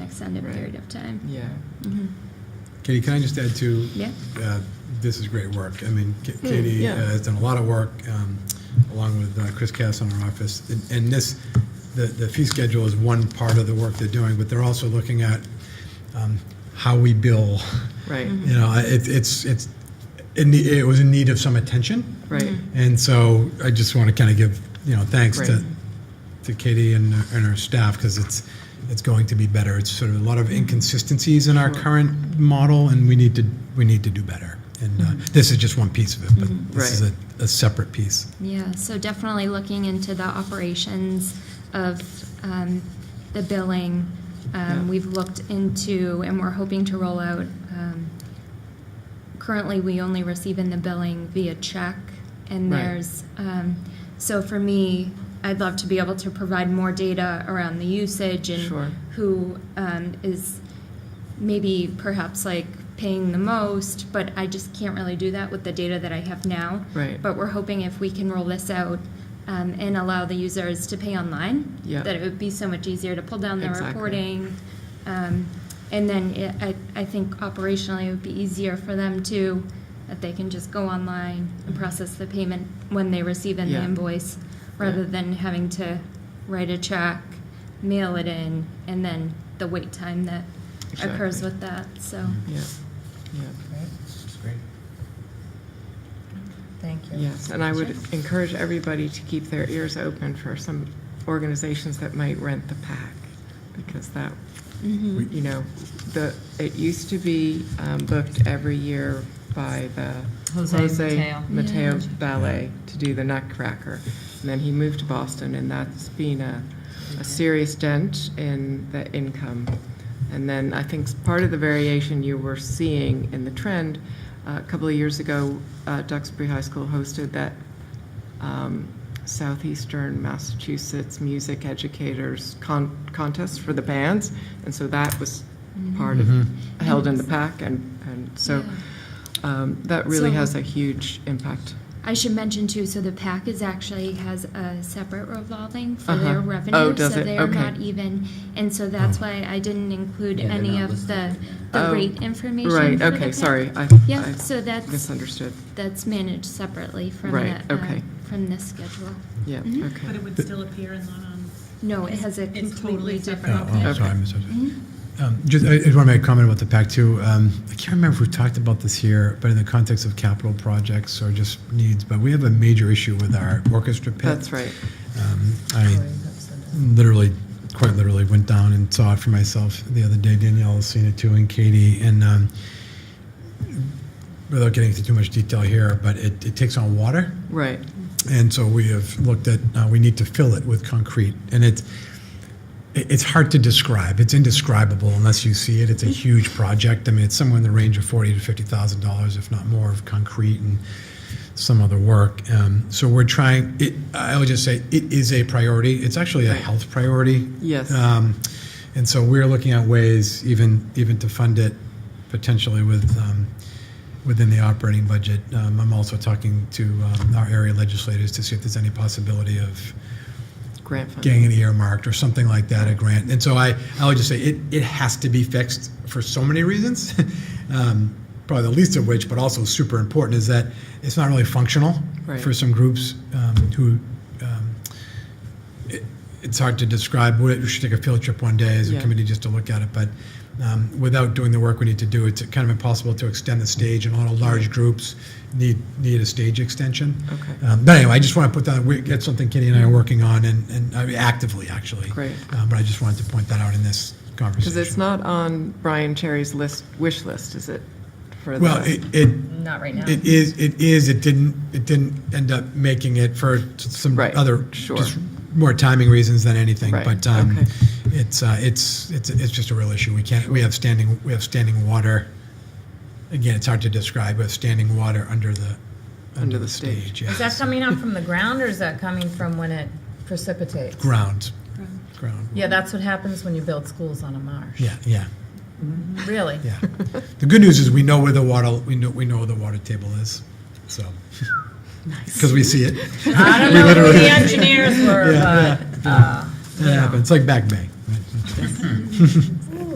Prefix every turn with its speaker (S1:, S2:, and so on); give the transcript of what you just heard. S1: extended
S2: Right.
S1: period of time.
S2: Yeah.
S3: Katie, can I just add to?
S1: Yeah.
S3: uh, This is great work. I mean, Ka- Katie
S2: yeah.
S3: uh, has done a lot of work, um, along with uh, Chris Cass in our office. And- And this, the, the fee schedule is one part of the work they're doing, but they're also looking at um, how we bill.
S2: Right.
S3: You know, it, it's, it's, it ne- it was in need of some attention.
S2: Right.
S3: And so I just want to kind of give, you know, thanks
S2: Right.
S3: to, to Katie and, and our staff because it's, it's going to be better. It's sort of a lot of inconsistencies in our current model and we need to, we need to do better. And uh, this is just one piece of it, but this is
S2: Mm-hmm. Right.
S3: a, a separate piece.
S1: Yeah, so definitely looking into the operations of um, the billing. Um,
S2: Yeah.
S1: We've looked into, and we're hoping to roll out. Um, currently, we only receive in the billing via check, and
S2: Right.
S1: there's um, so for me, I'd love to be able to provide more data around the usage and
S2: Sure.
S1: who um, is maybe perhaps like paying the most, but I just can't really do that with the data that I have now.
S2: Right.
S1: But we're hoping if we can roll this out um, and allow the users to pay online,
S2: Yeah.
S1: that it would be so much easier to pull down the
S2: Exactly.
S1: reporting. Um, and then it, I, I think operationally it would be easier for them too, that they can just go online and process the payment when they receive in the
S2: Yeah.
S1: invoice, rather than having to write a check, mail it in, and then the wait time that occurs
S2: Exactly.
S1: with that. So.
S2: Yeah. Yeah.
S4: Thank you.
S2: Yes, and I would encourage everybody to keep their ears open for some organizations that might rent the pack, because that, you know, the, it used to be um, booked every year by the
S4: Jose Mateo.
S2: Mateo
S1: Yeah.
S2: Ballet to do the Nutcracker. And then he moved to Boston, and that's been a, a serious dent in the income. And then I think s- part of the variation you were seeing in the trend, uh, a couple of years ago, uh, Duxbury High School hosted that um, Southeastern Massachusetts Music Educators con- Contest for the bands, and so that was part of, held in the pack, and, and so um, that really
S1: So-
S2: has a huge impact.
S1: I should mention too, so the PAC is actually has a separate revolving for
S2: Uh-huh.
S1: their
S2: Oh,
S1: revenue,
S2: does
S1: so
S2: it?
S1: they are
S2: Okay.
S1: not even, and so that's why I didn't include
S5: Yeah, they're
S1: any
S5: not
S1: of the
S5: listed.
S1: the
S2: Oh.
S1: rate information.
S2: Right,
S1: for the
S2: okay,
S1: PAC.
S2: sorry, I
S1: Yeah,
S2: I
S1: so that's
S2: misunderstood.
S1: that's managed separately from
S2: Right,
S1: the, um,
S2: okay.
S1: from this schedule.
S2: Yeah,
S1: Mhm.
S6: But
S2: okay.
S6: it would still appear in one on.
S1: No, it has a
S6: It's
S1: completely
S6: totally
S1: different.
S3: Oh,
S6: separate.
S3: I'm
S2: Okay. Mm-hmm.
S3: sorry, I misunderstood. Um, Just, I just want to make a comment about the PAC too. Um, I can't remember if we talked about this here, but in the context of capital projects or just needs, but we have a major issue with our orchestra pit.
S2: Mm-hmm. That's right.
S3: Um, I literally, quite literally, went down and saw it for myself the other day. Danielle has seen it too, and Katie. And um, without getting into too much detail here, but it, it takes on water.
S2: Right,
S3: And so we have looked at, uh, we need to fill it with concrete. And it's, it- it's hard to describe. It's indescribable unless you see it. It's a huge project. I mean, it's somewhere in the range of forty to fifty thousand dollars, if not more, of concrete and some other work. Um, so we're trying. It, I would just say it is a priority. It's actually a health priority.
S2: Yes.
S3: Um, and so we're looking at ways, even even to fund it, potentially with. Um, Within the operating budget, um, I'm also talking to um, our area legislators to see if there's any possibility of
S2: grant funding.
S3: getting it earmarked or something like that, a grant. And so I, I would just say it, it has to be fixed for so many reasons. um, probably the least of which, but also super important, is that it's not really functional
S2: Right.
S3: for some groups um, who. Um, it, it's hard to describe. We we should take a field trip one day as a
S2: Yeah.
S3: committee just to look at it, but um, without doing the work we need to do, it's kind of impossible to extend the stage. And a lot of large groups need need a stage extension.
S2: Okay.
S3: Um, but anyway, I just want to put that. We, that's something Kenny and I are working on, and, and I mean, actively actually.
S2: Great.
S3: Um, but I just wanted to point that out in this conversation.
S2: Because it's not on Brian Cherry's list, wish list, is it? For
S3: well,
S2: the-
S3: it, it
S4: Not right now.
S3: It is, it is, it didn't, it didn't end up making it for t- some
S2: Right,
S3: other,
S2: sure.
S3: just more timing reasons than anything.
S2: Right,
S3: But um,
S2: okay.
S3: it's, uh, it's, it's, it's just a real issue. We can't, we have standing, we have standing water. Again, it's hard to describe, but standing water under the, under the stage,
S4: Is that
S3: yes.
S4: coming up from the ground or is that coming from when it precipitates?
S3: Ground, ground,
S4: Yeah, that's what happens when you build schools on a marsh.
S3: yeah, yeah,
S4: Really?
S3: yeah. The good news is we know where the water, we know, we know where the water table is, so. Because we see it.
S4: I don't know who the engineers were, but, uh,
S3: It happens, it's like Back Bay. right?